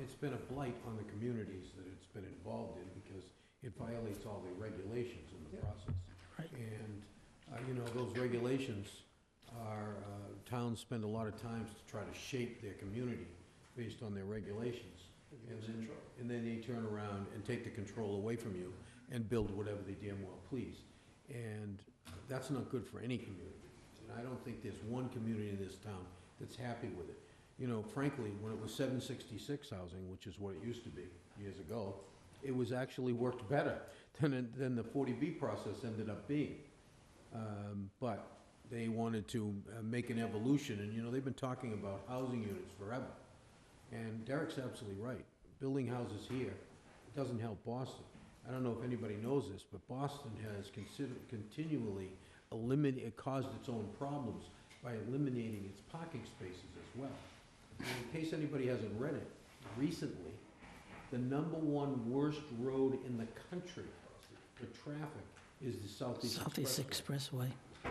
it's been a blight on the communities that it's been involved in because it violates all the regulations in the process. Right. And, uh, you know, those regulations are, uh, towns spend a lot of time to try to shape their community based on their regulations. And then, and then they turn around and take the control away from you and build whatever they damn well please. And that's not good for any community. And I don't think there's one community in this town that's happy with it. You know, frankly, when it was seven sixty-six housing, which is what it used to be years ago, it was actually worked better than, it- than the forty B process ended up being. Um, but they wanted to uh, make an evolution, and you know, they've been talking about housing units forever. And Derek's absolutely right. Building houses here doesn't help Boston. I don't know if anybody knows this, but Boston has considered, continually eliminated, it caused its own problems by eliminating its parking spaces as well. And In case anybody hasn't read it, recently, the number one worst road in the country for traffic is the Southeast Southeast Expressway. Expressway.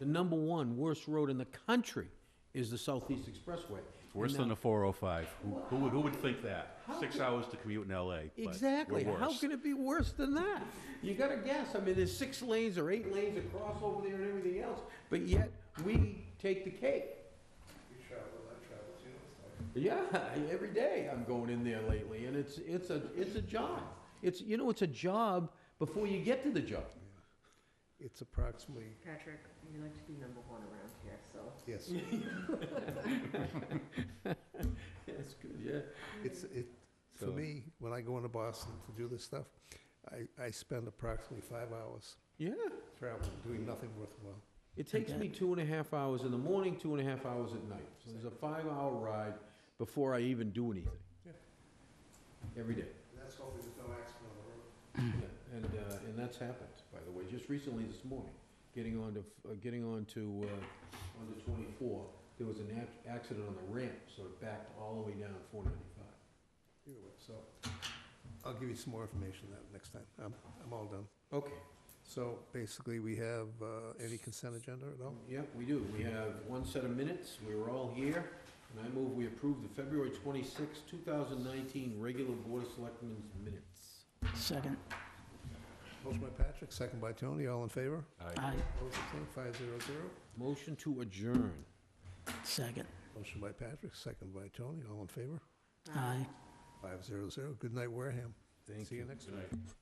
The number one worst road in the country is the Southeast Expressway. Worse And than oh now- the 405. Who, who would, who would think that? Six hours to commute in LA. but we're Exactly. How worse. can it be worse than that? You gotta guess. I mean, there's six lanes or eight lanes across over there and everything else, but yet we take the cake. Yeah, every day I'm going in there lately, and it's, it's a, it's a job. It's, you know, it's a job before you get to the job. It's approximately, Patrick, you like to be number one around here, so. yes, That's good, yeah. it's, it, for So- me, when I go into Boston to do this stuff, I, I spend approximately five hours Yeah. traveling, doing nothing worthwhile. It takes me two and a half hours in the morning, two and a half hours at night. So there's a five-hour ride before I even do anything. Every day. And that's hoping there's no accident on the road. Yeah, And, uh, and that's happened, by the way, just recently this morning, getting on to, uh, getting on to, uh, on to twenty-four, there was an ac- accident on the ramp, so it backed all the way down four ninety-five. Either way, so I'll give you some more information that next time. I'm, I'm all done. Okay, So basically, we have, uh, any consent agenda at all? yep, we do. We have one set of minutes. We were all here. And I move we approve the February twenty-sixth, two thousand nineteen regular Board of Selectmen's minutes. Second. Motion by Patrick, second by Tony, all in favor? Aye. Opposed, abstained, five zero zero. Motion to adjourn. Second. Motion by Patrick, second by Tony, all in favor? Aye. Five zero zero. Good night, Wareham. Thank See you next time.